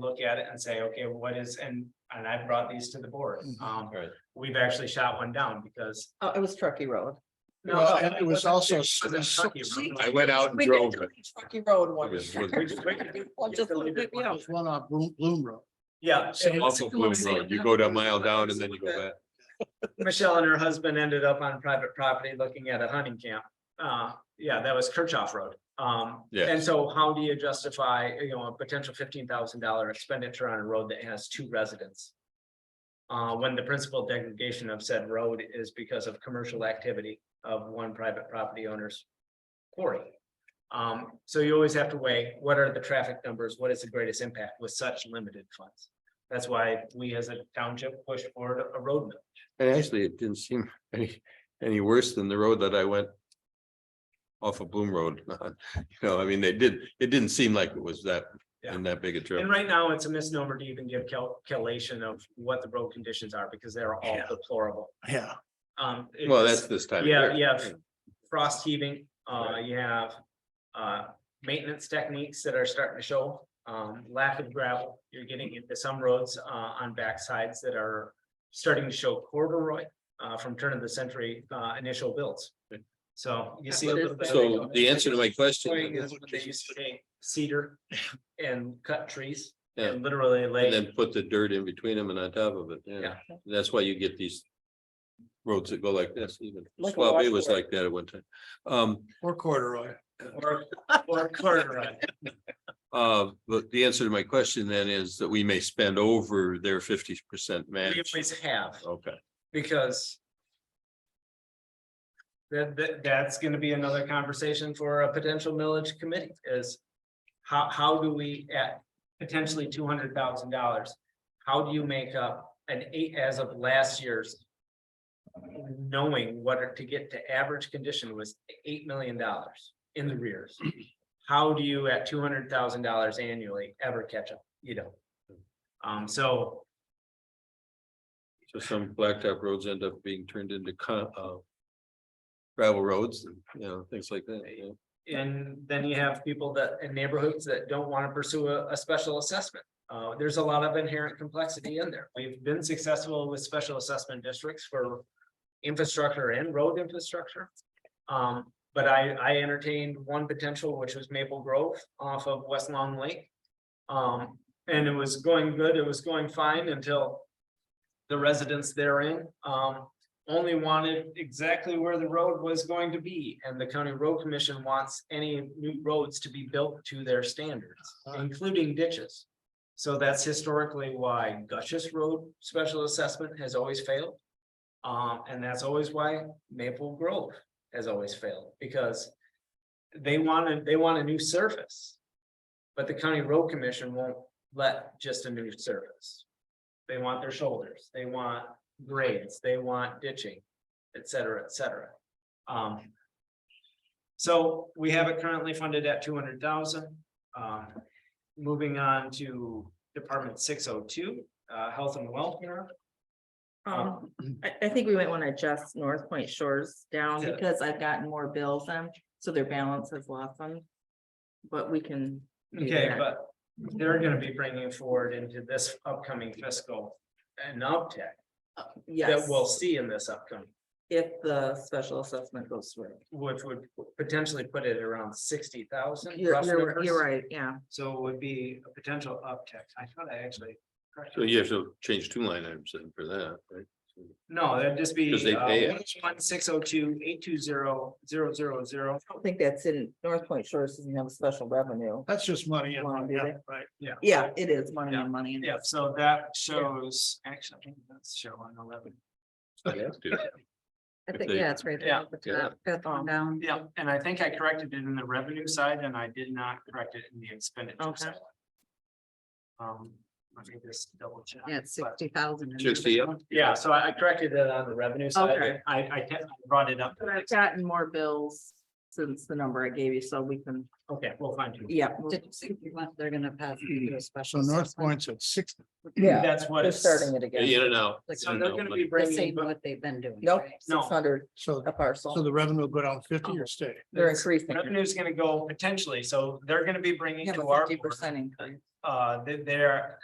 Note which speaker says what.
Speaker 1: look at it and say, okay, what is, and, and I brought these to the board.
Speaker 2: Mhm.
Speaker 1: Um,
Speaker 3: Right.
Speaker 1: we've actually shot one down because.
Speaker 2: Oh, it was Truckee Road.
Speaker 1: No,
Speaker 2: Well,
Speaker 1: it
Speaker 2: and
Speaker 1: wasn't-
Speaker 4: also
Speaker 1: it wasn't
Speaker 4: s-
Speaker 1: Truckee
Speaker 4: s-
Speaker 1: Road.
Speaker 3: I went out and
Speaker 2: We did
Speaker 3: drove
Speaker 2: go
Speaker 3: it.
Speaker 2: to Truckee Road one.
Speaker 3: It was
Speaker 2: year.
Speaker 3: really-
Speaker 2: Well, just a little bit, yeah.
Speaker 4: There's one on Bloom, Bloom Road.
Speaker 1: Yeah, and
Speaker 3: Off of Bloom Road, you go down mile down and then you go back.
Speaker 1: Michelle and her husband ended up on private property looking at a hunting camp. Uh, yeah, that was Kirchhoff Road. Um,
Speaker 3: Yes.
Speaker 1: and so how do you justify, you know, a potential fifteen thousand dollar expenditure on a road that has two residents? Uh, when the principal degradation of said road is because of commercial activity of one private property owner's quarry. Um, so you always have to weigh, what are the traffic numbers? What is the greatest impact with such limited funds? That's why we as a township pushed forward a road map.
Speaker 3: And actually, it didn't seem any, any worse than the road that I went. Off of Bloom Road, you know, I mean, they did, it didn't seem like it was that, in that big a trip.
Speaker 1: And right now, it's a misnomer to even give cal- calculation of what the road conditions are, because they're all
Speaker 4: Yeah.
Speaker 1: deplorable.
Speaker 4: Yeah,
Speaker 1: Um. it-
Speaker 3: Well, that's this time. of
Speaker 1: Yeah,
Speaker 3: year.
Speaker 1: you have frost heaving, uh, you have, uh, maintenance techniques that are starting to show. Um, lack of gravel, you're getting into some roads, uh, on backsides that are starting to show corduroy, uh, from turn of the century, uh, initial builds. So you see. a little bit of-
Speaker 3: So the answer to my
Speaker 1: Point
Speaker 3: question,
Speaker 1: is when they used to take cedar and cut trees
Speaker 3: Yeah.
Speaker 1: and literally
Speaker 3: and
Speaker 1: lay,
Speaker 3: then put the dirt in between them and on top of it, yeah,
Speaker 1: Yeah.
Speaker 3: that's why you get these. Roads that go like this, even
Speaker 2: Like a
Speaker 3: Swab was
Speaker 2: washboard.
Speaker 3: like that at one time, um,
Speaker 4: or corduroy.
Speaker 1: or, or corduroy.
Speaker 3: Uh, but the answer to my question then is that we may spend over their fifty percent
Speaker 1: We
Speaker 3: match.
Speaker 1: always have,
Speaker 3: Okay,
Speaker 1: because that, that, that's gonna be another conversation for a potential millage committee is how, how do we at potentially two hundred thousand dollars, how do you make up an eight as of last year's knowing what to get to average condition was eight million dollars in the rears. How do you at two hundred thousand dollars annually ever catch up? You don't. Um, so
Speaker 3: so some blacktop roads end up being turned into con- uh. Gravel roads, and you know, things like that, yeah.
Speaker 1: and then you have people that in neighborhoods that don't want to pursue a, a special assessment. Uh, there's a lot of inherent complexity in there. We've been successful with special assessment districts for infrastructure and road infrastructure. Um, but I, I entertained one potential, which was Maple Grove off of West Long Lake. Um, and it was going good, it was going fine until the residents therein, um, only wanted exactly where the road was going to be, and the county road commission wants any new roads to be built to their standards, including ditches. So that's historically why Gushes Road Special Assessment has always failed. Um, and that's always why Maple Grove has always failed, because they wanted, they want a new surface. But the county road commission won't let just a new surface. They want their shoulders, they want grades, they want ditching, et cetera, et cetera. Um. So we have it currently funded at two hundred thousand. Um, moving on to Department six oh two, uh, Health and Welfare.
Speaker 2: Um, I, I think we might want to adjust North Point Shores down
Speaker 1: Yeah.
Speaker 2: because I've gotten more bills on, so their balance has blossomed. But we can,
Speaker 1: Okay,
Speaker 2: Yeah.
Speaker 1: but they're gonna be bringing forward into this upcoming fiscal an uptick that
Speaker 2: yes,
Speaker 1: we'll see in this upcoming,
Speaker 2: if the special assessment goes through.
Speaker 1: which would potentially put it around sixty thousand.
Speaker 2: You're, you're, you're right, yeah.
Speaker 1: So it would be a potential uptick. I thought I actually.
Speaker 3: So you have to change two line items then for that, right?
Speaker 1: No, that'd just be. uh,
Speaker 3: Because they pay it.
Speaker 1: One six oh two eight two zero zero zero zero.
Speaker 2: I don't think that's in, North Point Shores doesn't have a special revenue.
Speaker 4: That's just money. in-
Speaker 2: Well, do
Speaker 4: yeah,
Speaker 2: they?
Speaker 4: Right.
Speaker 2: Yeah, it is money
Speaker 1: Yeah.
Speaker 2: on money. in.
Speaker 1: Yeah, so that shows, actually, I think that's showing eleven.
Speaker 2: I
Speaker 3: If
Speaker 2: think,
Speaker 3: they-
Speaker 2: yeah, it's right there.
Speaker 1: Yeah.
Speaker 2: at the
Speaker 3: Yeah.
Speaker 2: top, fifth one down.
Speaker 1: Yeah, and I think I corrected it in the revenue side and I did not correct it in the expenditure
Speaker 2: Okay.
Speaker 1: side. Um, let me just double check.
Speaker 2: Yeah, it's
Speaker 1: But-
Speaker 2: sixty thousand.
Speaker 3: Sixty, up.
Speaker 1: Yeah, so I I corrected it on the revenue side.
Speaker 2: Okay.
Speaker 1: I, I kept- I brought it up.
Speaker 2: But I've gotten more bills since the number I gave you, so we can,
Speaker 1: Okay, we'll find you.
Speaker 2: yeah. They're gonna pass you a
Speaker 4: Hmm. So
Speaker 2: special.
Speaker 4: North Point's at sixty.
Speaker 2: Yeah,
Speaker 1: That's what.
Speaker 2: they're
Speaker 1: it's-
Speaker 2: starting it
Speaker 3: in
Speaker 2: again.
Speaker 3: and out.
Speaker 2: Like,
Speaker 1: So they're gonna be
Speaker 5: The
Speaker 1: bringing.
Speaker 5: same what they've been doing.
Speaker 2: Nope,
Speaker 5: right?
Speaker 1: No.
Speaker 2: six hundred
Speaker 4: So,
Speaker 2: a
Speaker 4: so
Speaker 2: parcel.
Speaker 4: the revenue will go down
Speaker 2: Oh.
Speaker 4: fifty or stay?
Speaker 2: They're increasing.
Speaker 1: Revenue is gonna go potentially, so they're gonna be bringing
Speaker 2: Have
Speaker 1: to
Speaker 2: a
Speaker 1: our
Speaker 2: fifty
Speaker 1: board
Speaker 2: percent increase.
Speaker 1: uh, they, they're